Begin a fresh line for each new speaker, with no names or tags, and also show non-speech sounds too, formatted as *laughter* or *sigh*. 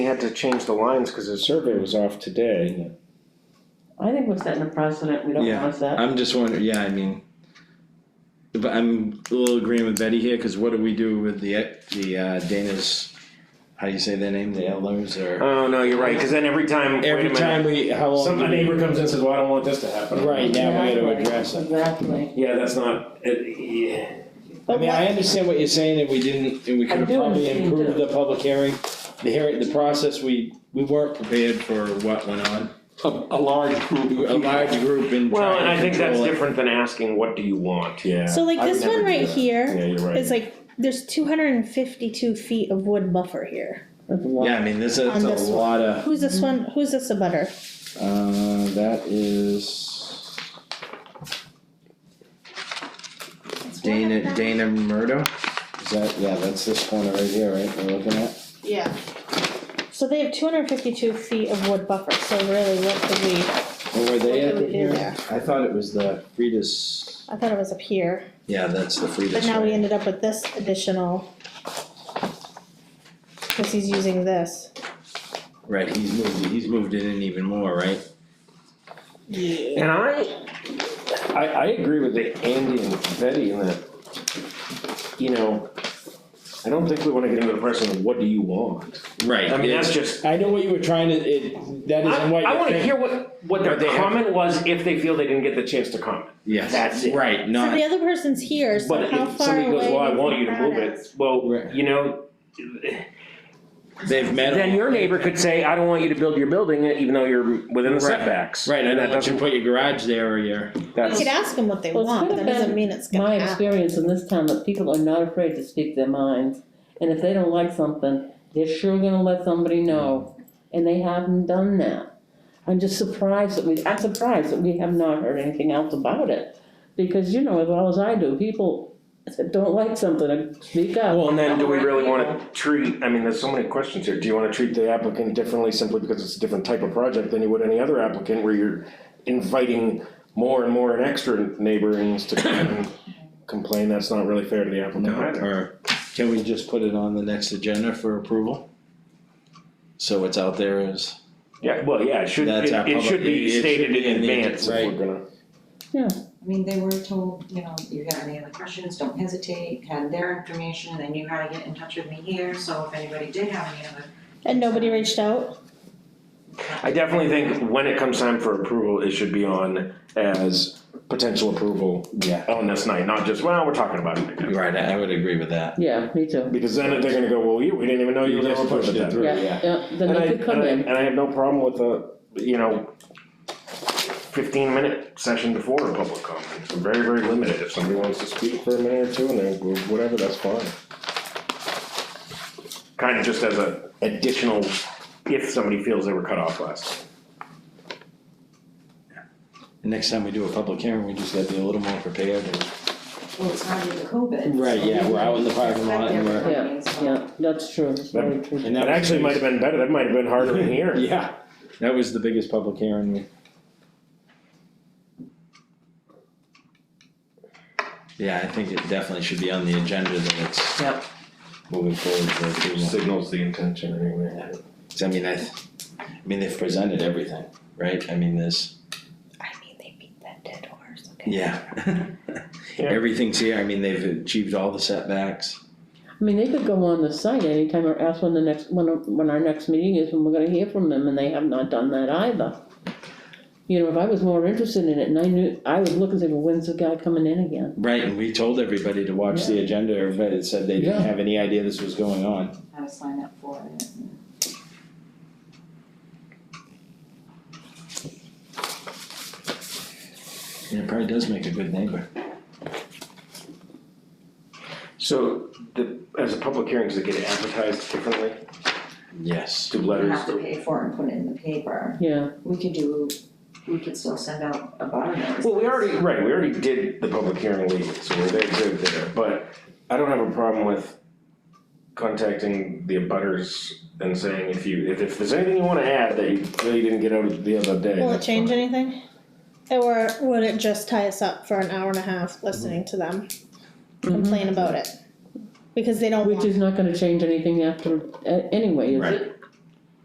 They had to change the lines because the survey was off today.
I think we're setting a precedent, we don't
Yeah.
want that.
I'm just wondering, yeah, I mean. But I'm a little agreeing with Betty here, cause what do we do with the, the uh, Dana's, how do you say their name, the Ellers or?
Oh, no, you're right, because then every time, wait a
Every
minute,
time we, how long
some,
do
a neighbor
we,
comes in and says, well, I don't want this to happen.
right, now we gotta address it.
Exactly,
Yeah, that's not, it, yeah,
I
but
mean, I
what,
understand what you're saying, if we didn't, and we
I
could have
do
probably
understand
improved
that.
the public hearing, the hearing, the process, we, we weren't prepared for what went on.
A, a large group.
A large group and
well, and I
trying to
think that's
control it.
different than asking, what do you want? Yeah.
So like
I would
this
never
one
do
right
that.
here
Yeah, you're
is
right.
like, there's two hundred and fifty-two feet of wood buffer here.
that's a lot.
Yeah, I mean, this is
On
a
this one.
lot of,
Who's this one, who's this a butter?
uh, that is Dana, Dana Murdo? Is that, yeah, that's this corner right here, right, we're looking at?
Yeah. So they have two hundred and fifty-two feet of wood buffer, so really what could we,
What were they
what
at
could we
in
do
here?
there?
I thought it was the Frida's,
I thought it was up here,
yeah, that's the Frida's,
but now we
right?
ended up with this additional. Cause he's using this.
Right, he's moved, he's moved it in even more, right?
And I, I, I agree with the Andy and Betty in that, you know, I don't think we wanna get into the person of what do you want?
Right.
I mean, that's
it-
just,
I know what you were trying to, it, that
I,
isn't what
I
you're
wanna
thinking.
hear what, what their
But they have-
comment was, if they feel they didn't get the chance to comment.
Yes.
That's it.
Right,
So
not,
the other person's here, so
But
how
if
far away?
somebody goes, well, I want you to move it, well,
Right.
you know,
they've met.
then
all-
your neighbor could say, I don't want you to build your building, even though you're within the
Right.
setbacks.
Right, I
And
know,
that
let you
doesn't,
put your garage there or your,
We
that's,
could ask them what they
Well, it
want,
could
that
have
doesn't
been
mean it's gonna
My
happen.
experience in this town, that people are not afraid to speak their minds, and if they don't like something, they're sure gonna let somebody know, and they haven't done that. I'm just surprised that we, I'm surprised that we have not heard anything else about it, because you know as well as I do, people that don't like something, speak up.
well, and then do we really wanna treat, I mean, there's so many questions here, do you wanna treat the applicant differently simply because it's a different type of project than you would any other applicant where you're inviting more and more and extra neighborings to come and complain, that's not really fair to the applicant either.
or can we just put it on the next agenda for approval? So it's out there as,
Yeah, well, yeah, it should,
That's
it
our
it should
public- it- it
be
should
stated
be in
in
the-
advance if we're
right.
gonna,
I mean, they were told, you know, if you have any other questions, don't hesitate, had their information, they knew how to get in touch with me here, so if anybody did have any other.
And nobody reached out?
I definitely think when it comes time for approval, it should be on as potential approval
yeah,
on this night, not just, well, we're talking about it again.
right, I would agree with that.
Yeah, me too,
Because then they're gonna go, well, you, we didn't even know you were gonna approve it then.
yeah, yeah, then they could come
And I, and I,
in,
and I have no problem with a, you know, fifteen minute session before a public comment, It's very, very limited, if somebody wants to speak for a minute or two and then go- whatever, that's fine. Kind of just as a additional, if somebody feels they were cut off last time.
Next time we do a public hearing, we just gotta be a little more prepared and.
Well, it's not even COVID.
Right, yeah, we're out in the parking lot and we're-
yeah, that's true, that's very true.
and that
That
was-
actually might have been better, that might have been harder in *laughs* here.
Yeah, that was the biggest public hearing we. Yeah, I think it definitely should be on the agenda that it's.
Yep.
Moving forward for approval,
Signals the intention anyway.
'Cause I mean, I, th- I mean, they've presented everything, right, I mean, this,
I mean, they beat that dead horse, okay?
yeah.
Yeah.
*laughs* Everything's here, I mean, they've achieved all the setbacks,
I mean, they could go on the site anytime or ask when the next, when, when our next meeting is, when we're gonna hear from them, and they have not done that either. You know, if I was more interested in it and I knew, I would look and say, well, when's the guy coming in again?
right, and we told everybody to watch the agenda, everybody said they didn't
Yeah.
have any idea this was going on.
How to sign up for it.
Yeah, It probably does make a good neighbor.
So the, as a public hearing, does it get advertised differently?
Yes.
Do
You
letters?
have to pay for it and put it in the paper,
Yeah,
we could do, we could still send out a butter notice.
Well, we already, right, we already did the public hearing legally, so we're there, good there, but I don't have a problem with contacting the abutters and saying if you, if, if there's anything you wanna add that you really didn't get out the other day.
Will it
that's
change
fine.
anything? Or would it just tie us up for an hour and a half listening to them
Mm-hmm.
complain about it? Because they don't
which
want,
is not gonna change anything after, uh, anyway, is it?